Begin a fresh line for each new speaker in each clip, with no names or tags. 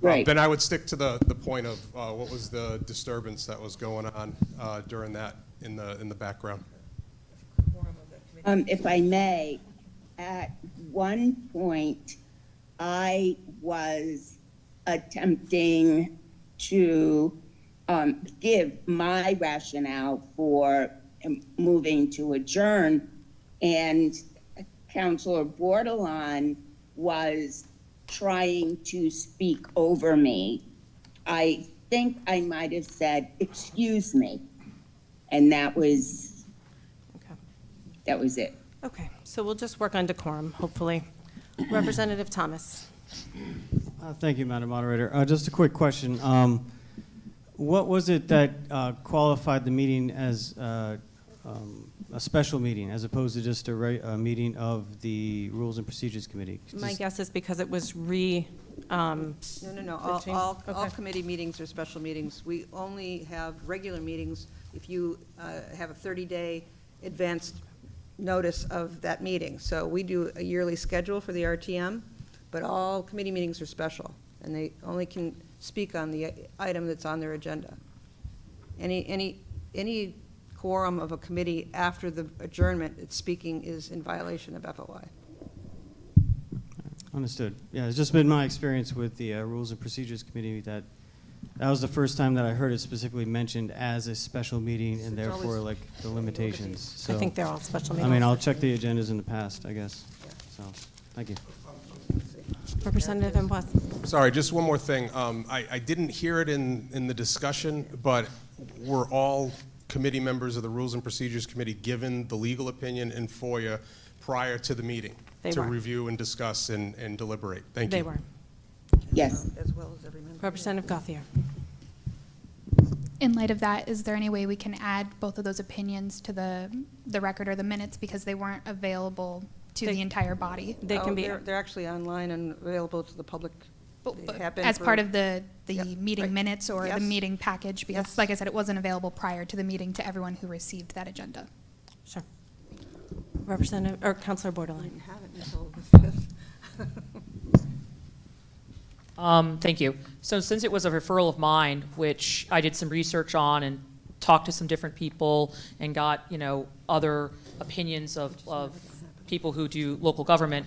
Right.
Um, Then I would stick to the, the point of uh, what was the disturbance that was going on uh, during that in the, in the background.
quorum of the committee.
Um, if I may, at one point, I was attempting to, um, give my rationale for um, moving to adjourn, and Counselor Bordelon was trying to speak over me. I think I might have said, excuse me, and that was,
Okay.
that was it.
Okay, so we'll just work on decorum, hopefully. Representative Thomas?
Uh, Thank you, Madam Moderator. Uh, Just a quick question. Um, What was it that uh, qualified the meeting as uh, um, a special meeting as opposed to just a re- a meeting of the Rules and Procedures Committee?
My
Just-
guess is because it was re, um,
No, no, no, all,
Fifteen?
all, all
Okay.
committee meetings are special meetings. We only have regular meetings if you uh, have a 30-day advanced notice of that meeting. So we do a yearly schedule for the RTM, but all committee meetings are special, and they only can speak on the item that's on their agenda. Any, any, any quorum of a committee after the adjournment, it's speaking is in violation of FOI.
Understood. Yeah, it's just been my experience with the uh, Rules and Procedures Committee that that was the first time that I heard it specifically mentioned as a special meeting and
It's always-
therefore like the limitations.
I
So,
think they're all special
I mean,
meetings.
I'll check the agendas in the past, I guess. So, thank you.
Representative Ambros?
Sorry, just one more thing. Um, I, I didn't hear it in, in the discussion, but were all committee members of the Rules and Procedures Committee given the legal opinion in FOIA prior to the meeting?
They
To
were.
review and discuss and, and deliberate? Thank you.
They were.
Yes.
Um, As well as every member.
Representative Gothier?
In light of that, is there any way we can add both of those opinions to the, the record or the minutes because they weren't available to
They-
the entire body?
They
Oh,
can be,
They're they're actually online and available to the public. They
But, but
have been
as
for-
part of the,
Yep,
the meeting
right.
minutes or
Yes.
the meeting package?
Yes.
Because like I said, it wasn't available prior to the meeting to everyone who received that agenda.
sure. Representative, or Counselor
I
Borderline?
didn't have it until the fifth.
Um, thank you. So since it was a referral of mine, which I did some research on and talked to some different people and got, you know, other opinions of, of people who do local government,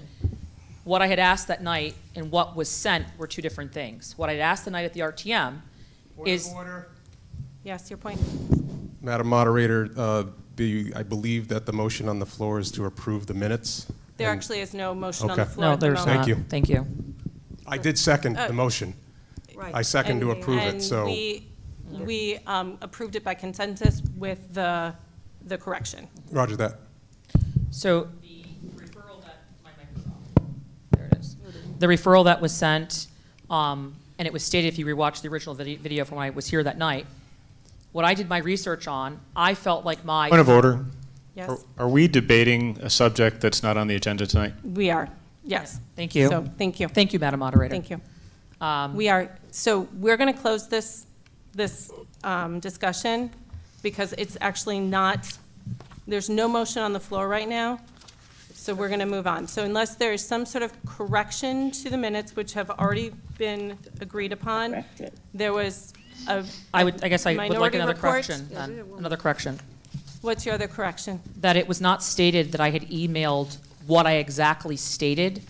what I had asked that night and what was sent were two different things. What I'd asked the night at the RTM
Point of
is,
order.
Yes, your point?
Madam Moderator, uh, the, I believe that the motion on the floor is to approve the minutes.
There
And
actually is no motion on the
Okay.
floor
no,
at the
there's
moment.
Thank
not.
you.
Thank you.
I did second
Oh.
the motion.
Right.
I second to
And-
approve it, so.
And we, we um, approved it by consensus with the, the correction.
Roger that.
So the referral that, my microphone, there it is. The referral that was sent, um, and it was stated if you rewatch the original vide- video from when I was here that night, what I did my research on, I felt like my.
Point of order. Are-
Yes,
Are we debating a subject that's not on the agenda tonight?
we are, yes.
Thank you.
So, thank you.
Thank you, Madam Moderator.
Thank you.
Um,
We are, so we're going to close this, this um, discussion because it's actually not, there's no motion on the floor right now, so we're going to move on. So unless there is some sort of correction to the minutes, which have already been agreed upon,
Corrected.
there was a.
I would, I guess I would like
minority
another
report.
correction, then, another correction.
What's your other correction?
That it was not stated that I had emailed what I exactly stated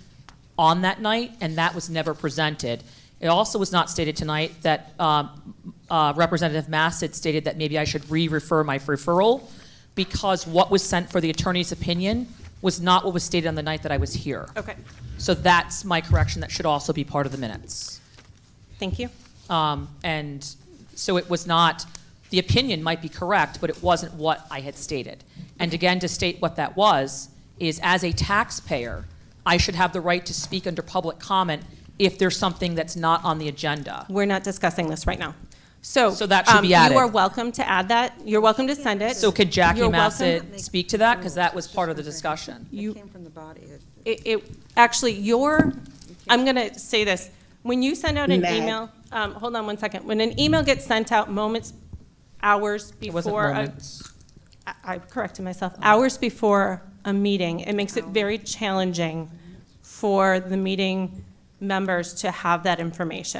on that night, and that was never presented. It also was not stated tonight that um, uh, Representative Mass had stated that maybe I should re-refer my referral, because what was sent for the attorney's opinion was not what was stated on the night that I was here.
Okay,
So that's my correction, that should also be part of the minutes.
thank you.
Um, And so it was not, the opinion might be correct, but it wasn't what I had stated. And again, to state what that was, is as a taxpayer, I should have the right to speak under public comment if there's something that's not on the agenda.
We're not discussing this right now. So.
So that should
um,
be added.
You are welcome to add that. You're welcome to send it.
So could Jackie
You're
Massett
welcome-
speak to that? Because that was part of the discussion.
You-
It came from the body. It-
It, it, actually, your, I'm going to say this. When you send out an
Meg.
email, um, hold on one second. When an email gets sent out moments, hours
It wasn't
before. uh, a-
moments.
I- I corrected myself, hours before a meeting, it makes it very challenging for the meeting members to have that information.